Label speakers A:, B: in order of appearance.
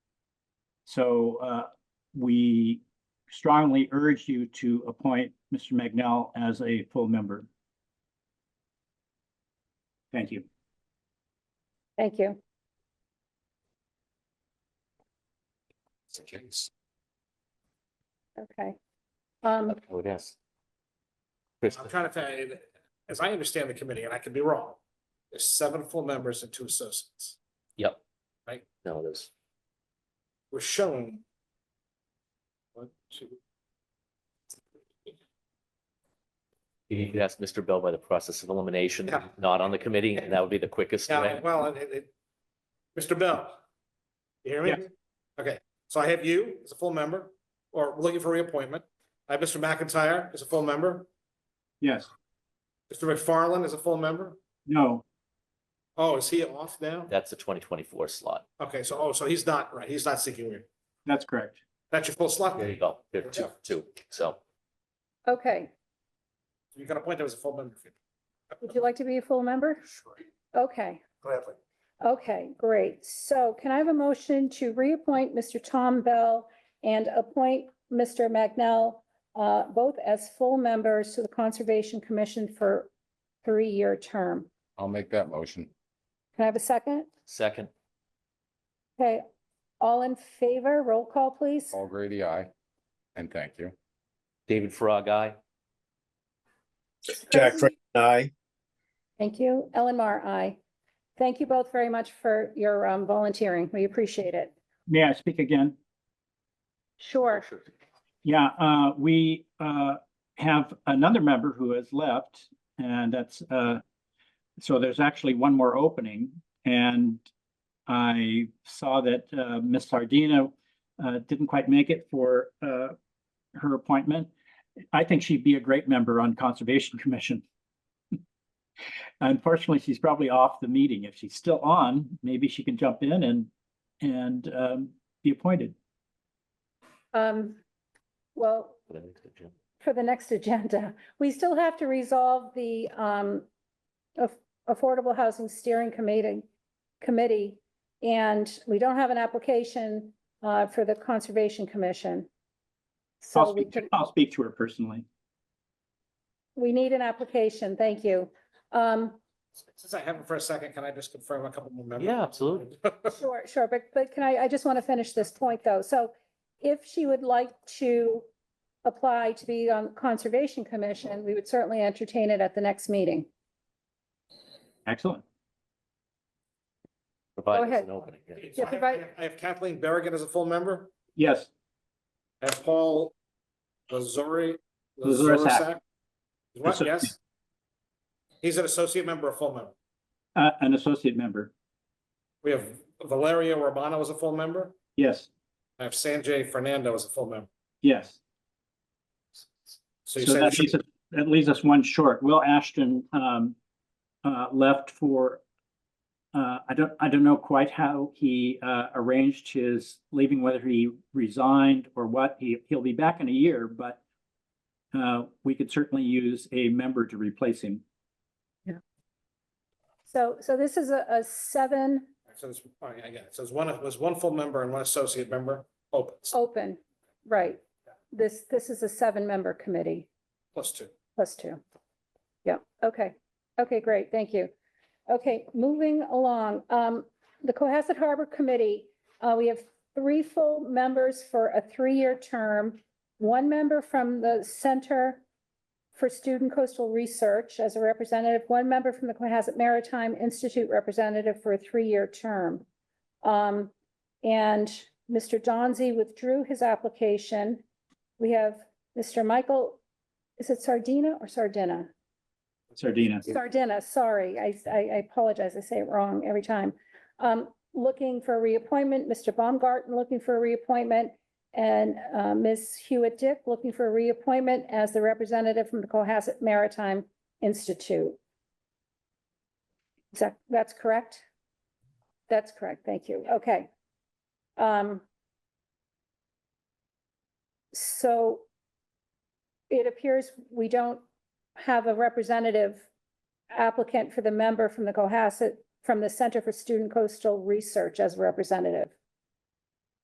A: So uh, we strongly urge you to appoint Mr. Magnell as a full member. Thank you.
B: Thank you. Okay. Um,
C: Oh, it is.
D: I'm
C: Kristen,
D: trying to find, as I understand the committee, and I could be wrong, there's seven full members and two associates.
C: Yep.
D: Right.
C: No, there's,
D: We're shown. One, two.
C: you need to ask Mr. Bell by the process of elimination,
D: Yeah.
C: not on the committee, and that would be the quickest
D: Yeah,
C: way.
D: well, it, it, Mr. Bell. You hear me?
A: Yes.
D: Okay, so I have you as a full member, or looking for reappointment. I have Mr. McIntyre as a full member,
A: Yes,
D: Mr. McFarland is a full member.
A: no,
D: Oh, is he off now?
C: That's a twenty twenty-four slot.
D: Okay, so, oh, so he's not, right, he's not seeking re.
A: that's correct.
D: That's your full slot.
C: There you
D: then.
C: go. There are two,
D: Yeah.
C: two. So
B: okay.
D: You can appoint him as a full member.
B: Would you like to be a full member?
D: Sure,
B: Okay,
D: Gladly.
B: okay, great. So can I have a motion to reappoint Mr. Tom Bell and appoint Mr. Magnell, uh, both as full members to the Conservation Commission for three-year term?
E: I'll make that motion.
B: Can I have a second?
C: second,
B: Okay, all in favor, roll call, please.
E: Paul Grady, aye. And thank you.
C: David Frog, aye.
F: Jack Creighton, aye.
B: Thank you. Ellen Mar, aye. Thank you both very much for your um, volunteering. We appreciate it.
A: May I speak again?
B: Sure.
A: Yeah, uh, we, uh, have another member who has left and that's, uh, so there's actually one more opening and I saw that, uh, Ms. Sardina, uh, didn't quite make it for, uh, her appointment. I think she'd be a great member on Conservation Commission. Unfortunately, she's probably off the meeting. If she's still on, maybe she can jump in and, and, um, be appointed.
B: Um, well, for the next agenda, we still have to resolve the um, Aff- Affordable Housing Steering Committee, Committee, and we don't have an application uh, for the Conservation Commission. So
A: I'll
B: we
A: speak,
B: could,
A: to- I'll speak to her personally.
B: we need an application. Thank you. Um,
D: Since I have him for a second, can I just confirm a couple more members?
C: Yeah, absolutely.
B: Sure, sure, but, but can I, I just want to finish this point, though. So if she would like to apply to be on Conservation Commission, we would certainly entertain it at the next meeting.
A: Excellent.
C: Provide us
B: ahead.
C: an opening. yeah.
D: So I have-
B: provide-
D: I have Kathleen Berrigan as a full member,
A: Yes,
D: I have Paul Lazori.
A: Lazaresak.
D: Lazaresak. What,
A: Associate.
D: yes? He's an associate member, a full member.
A: uh, an associate member.
D: We have Valeria Romano as a full member,
A: Yes,
D: I have Sanjay Fernando as a full member.
A: yes.
D: So you
A: So
D: said,
A: that leaves, us- that leaves us one short. Will Ashton, um, uh, left for, uh, I don't, I don't know quite how he, uh, arranged his leaving, whether he resigned or what. He, he'll be back in a year, but, uh, we could certainly use a member to replace him.
B: So, so this is a, a seven
D: so it's, all right, I get it, so it's one, it was one full member and one associate member opens,
B: open, right? This, this is a seven-member committee
D: plus two.
B: plus two. Yeah, okay, okay, great, thank you. Okay, moving along, um, the Cohasset Harbor Committee, uh, we have three full members for a three-year term. One member from the Center for Student Coastal Research as a representative, one member from the Cohasset Maritime Institute representative for a three-year term. Um, and Mr. Donzi withdrew his application. We have Mr. Michael, is it Sardina or Sardina?
A: Sardina.
B: Sardina, sorry, I, I I apologize, I say it wrong every time. Um, looking for a reappointment, Mr. Baumgarten looking for a reappointment, and, uh, Ms. Hewitt Dick looking for a reappointment as the representative from the Cohasset Maritime Institute. Is that, that's correct? That's correct, thank you, okay. Um, so it appears we don't have a representative applicant for the member from the Cohasset, from the Center for Student Coastal Research as representative.